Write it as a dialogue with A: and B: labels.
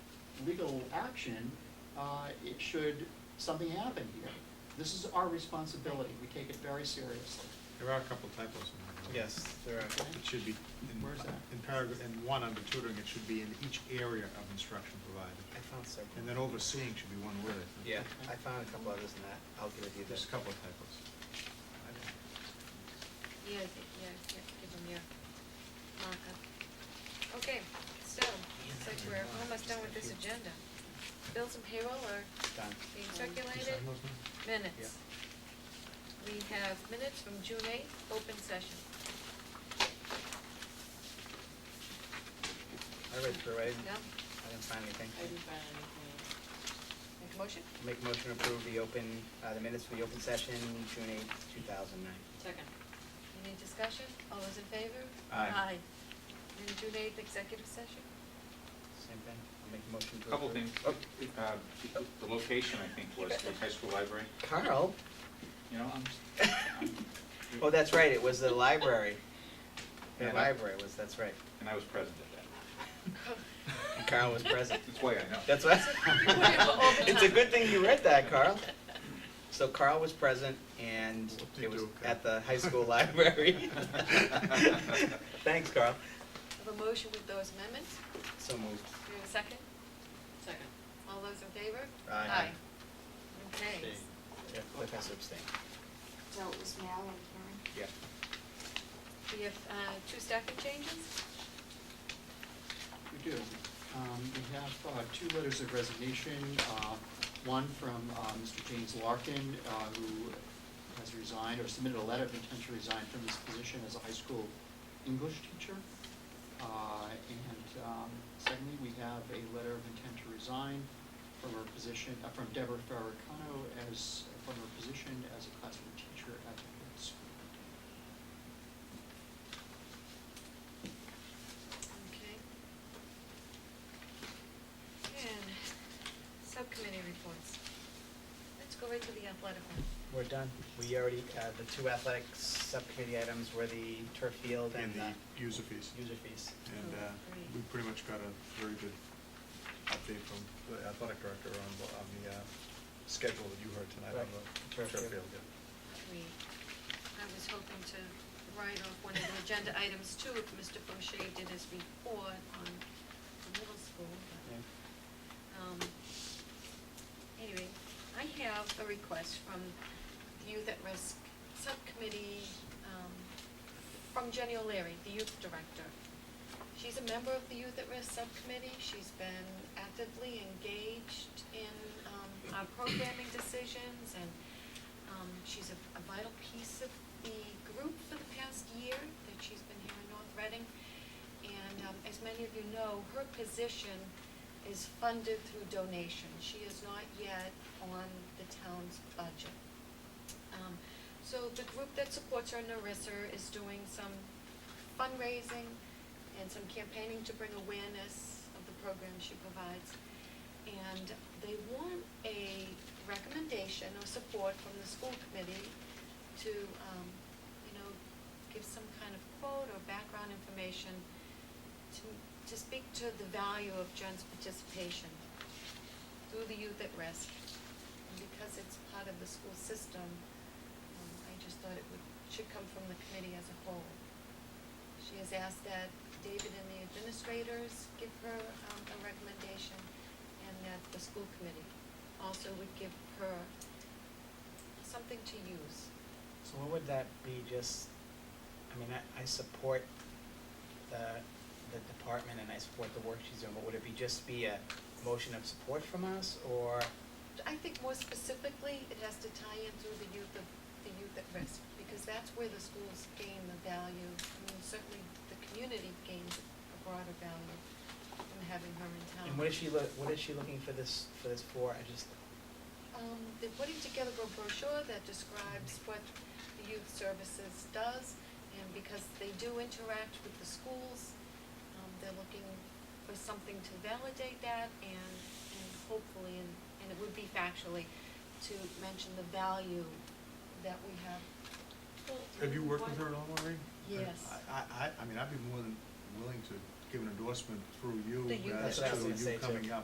A: legal action, uh, it should, something happen here. This is our responsibility, we take it very seriously.
B: There are a couple typos in there.
C: Yes, there are.
B: It should be, in,
A: Where's that?
B: in paragraph, in one under tutoring, it should be in each area of instruction
C: I
B: provided.
C: found several.
B: And then overseeing should be one word. I think.
C: Yeah, I found a couple others in that. I'll give it to you
B: Just a
C: then.
B: couple of typos.
D: Yeah, I think- yeah, yeah, give them your markup. Okay, so, it's like we're almost done with this agenda. Bills and payroll are
C: Done.
D: being
B: You
D: circulated,
B: sign those now?
D: minutes. We have minutes from June eighth, open session.
C: I read through it. I
D: No?
C: didn't find anything.
E: I didn't find anything.
D: Make a motion?
C: Make motion to approve the open, uh, the minutes for the open session, June eighth, two thousand nine.
E: Second.
D: Any discussion? All those in favor?
C: Aye.
D: Aye. And June eighth, executive session?
C: Same thing? I'll make a motion to
F: Couple
C: approve.
F: things, Uh, the location, I think, was the high school library,
C: Carl?
F: you know?
D: Um,
F: I'm- I'm-
C: Oh, that's right, it was the library. The
F: Yeah.
C: library was, that's right.
F: And I was present at that.
C: And Carl was present.
F: That's why I know.
C: That's what.
D: all the
C: It's a
D: time.
C: good thing you read that, Carl. So Carl was present and it was
B: Whoop-de-doo,
C: at the
B: Carl.
C: high school library. Thanks, Carl.
D: Have a motion with those amendments?
C: So moved.
D: Do we have a second?
E: Second.
D: All those in favor?
C: Aye.
D: Okay.
C: Yeah, Cliff has to abstain.
G: So it was Mal and Karen?
C: Yeah.
D: We have uh, two staffing changes?
A: We do. Um, we have, uh, two letters of resignation, uh, one from, uh, Mr. James Larkin, uh, who has resigned or submitted a letter of intent to resign from his position as a high school English teacher. Uh, and, um, secondly, we have a letter of intent to resign from her position, uh, from Deborah Farrakano as, from her position as a classroom teacher at the middle school.
D: Okay. And subcommittee reports. Let's go right to the athletic one.
C: We're done. We already, uh, the two athletics subcommittee items were the turf field and
B: And
C: the
B: the user fees.
C: user fees.
B: And uh,
D: Great.
B: we pretty much got a very good update from the athletic director on, the- on the uh, schedule that you heard tonight on
C: Right.
B: the turf
C: Turf field.
B: field, yeah.
D: We, I was hoping to write off one of the agenda items too, if Mr. Faucher did his report on the middle school, but.
C: Yeah.
D: Um, Anyway, I have a request from the Youth at Risk Subcommittee, um, from Jenny O'Leary, the youth director. She's a member of the Youth at Risk Subcommittee. She's been actively engaged in um, our programming decisions, and um, she's a a vital piece of the group for the past year that she's been here in North Reading. And um, as many of you know, her position is funded through donation. She is not yet on the town's budget. Um, So the group that supports her, Narissa, is doing some fundraising and some campaigning to bring awareness of the program she provides. And they want a recommendation or support from the school committee to, um, you know, give some kind of quote or background information to, to speak to the value of Jen's participation through the Youth at Risk. And because it's part of the school system, um, I just thought it would, should come from the committee as a whole. She has asked that David and the administrators give her, um, a recommendation, and that the school committee also would give her something to use.
C: So what would that be, just, I mean, I, I support the, the department and I support the work she's doing, but would it be just be a motion of support from us, or,
D: I think more specifically, it has to tie in through the youth of, the youth at risk, because that's where the schools gain the value. I mean, certainly the community gains a broader value from having her in town.
C: and what is she look, what is she looking for this, for this for, I just,
D: Um, they're putting together a brochure that describes what the youth services does, and because they do interact with the schools, um, they're looking for something to validate that and, and hopefully, and, and it would be factually, to mention the value that we have.
B: Have you worked with her at all, Maureen?
D: Yes.
B: I, I, I mean, I'd be more than willing to give an endorsement through you
D: The youth
B: as
C: That's what I was
B: to
C: gonna say,
B: you
C: too.
B: coming up